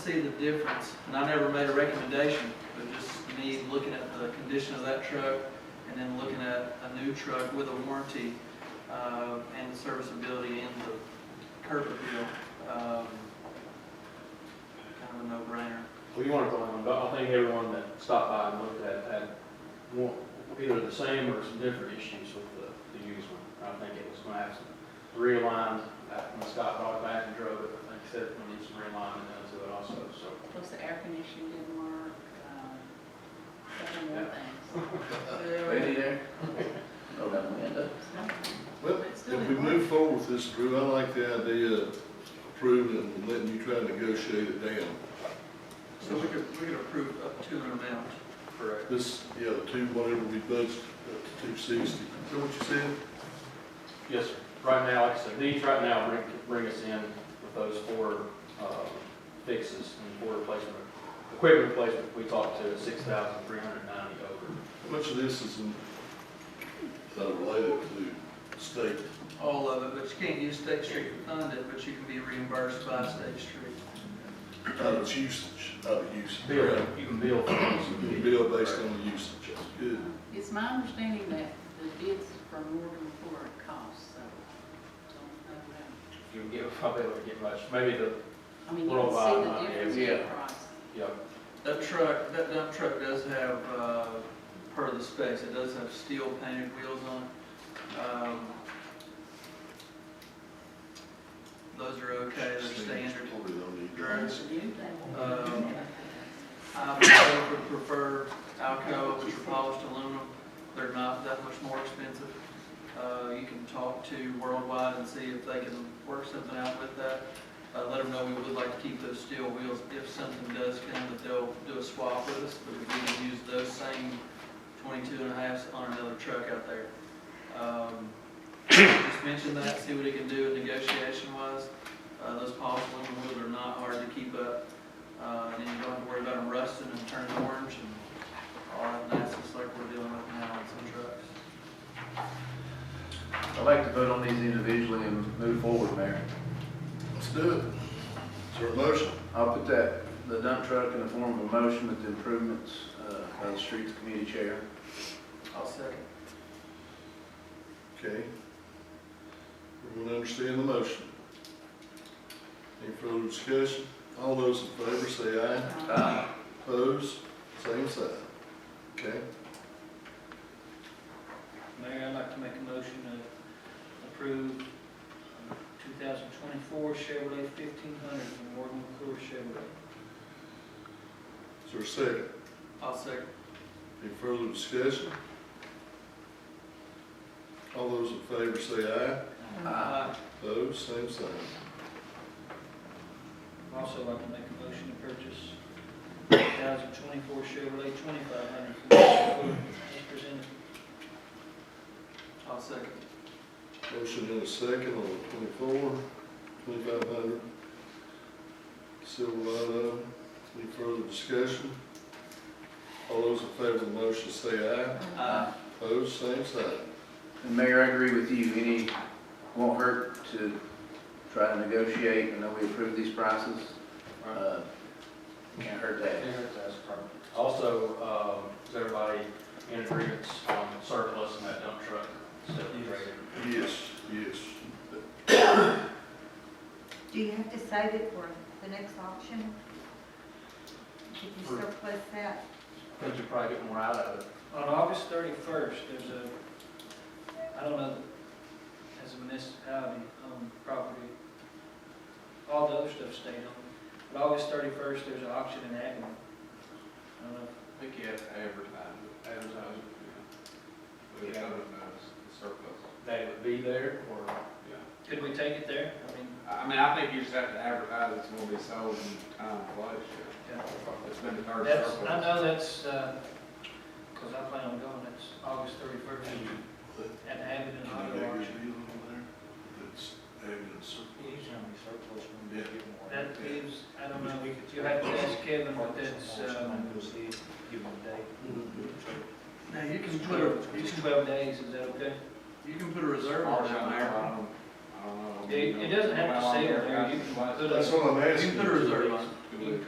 see the difference, and I never made a recommendation, but just me looking at the condition of that truck and then looking at a new truck with a warranty, uh, and serviceability and the curb appeal, um, kind of a no-brainer. Well, you want to go on, but I think everyone that stopped by and looked at had more, either the same or some different issues with the, the used one. I think it was going to have some realign, uh, when Scott brought it back and drove it, I think he said it needed some realigning done to it also, so. Plus the air conditioning didn't work, um, several more things. Ready there? Hold on, Amanda. Well, But still if we didn't move forward with this, Drew, I like the idea of approving and letting you try to negotiate it down. So we could, we could approve up to an amount. Correct. This, yeah, the two, whatever we budgeted, up to two sixty. Is that what you said? Yes, sir. Right now, like I said, these right now bring, bring us in with those four, uh, fixes and four replacement, equipment replacement, we talked to six thousand three hundred ninety over. Much of this is in- uh, related to state. All of it, but you can't use State Street to fund it, but you can be reimbursed by State Street. Out of usage, out of usage. Bill, you can bill for those. Bill based on the usage, that's good. It's my understanding that the bids for Morgan Ford cost, so don't know that. You'll get, probably won't get much, maybe the, I mean, you Little can see vibe, the difference in uh, yeah. price. yeah, That truck, that dump truck does have, uh, per the specs, it does have steel painted wheels on it. Um, Those are okay, they're standard. Probably don't need Right. that. It's a new thing. Um, I Uh, would prefer- prefer Alcoa, which are polished aluminum, they're not that much more expensive. Uh, you can talk to Worldwide and see if they can work something out with that. Uh, let them know we would like to keep those steel wheels, if something does come, that they'll do a swap with us, but we can use those same 22 and a halves on another truck out there. Um, Just mention that, see what he can do negotiation wise. Uh, those polished aluminum wheels are not hard to keep up. Uh, and then you don't have to worry about them rusting and turning orange and all that nice, just like we're dealing with now on some trucks. I'd like to vote on these individually and move forward, Mayor. Let's do it. Is there a motion? I'll put that, the dump truck in the form of a motion with the improvements uh, by the streets committee chair. I'll second. Okay. Everyone understand the motion? Any further discussion? All those in favor say aye. Um, Uh, Opposed, same side. Okay, Mayor, I'd like to make a motion to approve uh, 2024 Chevrolet 1500 from Morgan McClure Chevrolet. is there a second? I'll second. Any further discussion? All those in favor say aye. Um, uh, Opposed, same sign. I'd Also like to make a motion to purchase 2024 Chevrolet 2500 from Morgan McClure as presented. I'll second. Motion in a second on twenty-four, twenty-five hundred. Silverado, any further discussion? All those in favor of the motion say aye. uh, Opposed, same sign. And Mayor, I agree with you, any, won't hurt to try to negotiate, I know we approved these prices. right. Uh, Can't hurt that. Also, um, is everybody in agreement on surplus in that dump truck? So, right. Yes, yes. Do you have to save it for the next auction? Did you For- surplus that? I think you probably get more out of it. On August 31st, there's a, I don't know, as a municipality owned property, all the other stuff stayed on. But August 31st, there's an auction in Agnew. I don't know if I think you have to advertise, it. advertise uh, it, yeah. We Yeah. have the surplus, That it would be there, or, yeah. Could we take it there? I mean, I I mean, I think you just have to advertise it's gonna be sold in time and place, yeah. It's been the third that's, I surplus. know that's, because I plan on going, it's August thirty-first at the Hampton Can I get Auto a good Auction. deal on there? It's evidence. That gives, I don't know, you'll have to ask Kevin, but that's, um, Now, you can put a, you twelve, can, twelve days, is that okay? you can put a reserve I on don't know, that, Mayor. I don't know. It, it doesn't have to sell, you can put That's a, what I'm You asking. can put a reserve on it. Do it.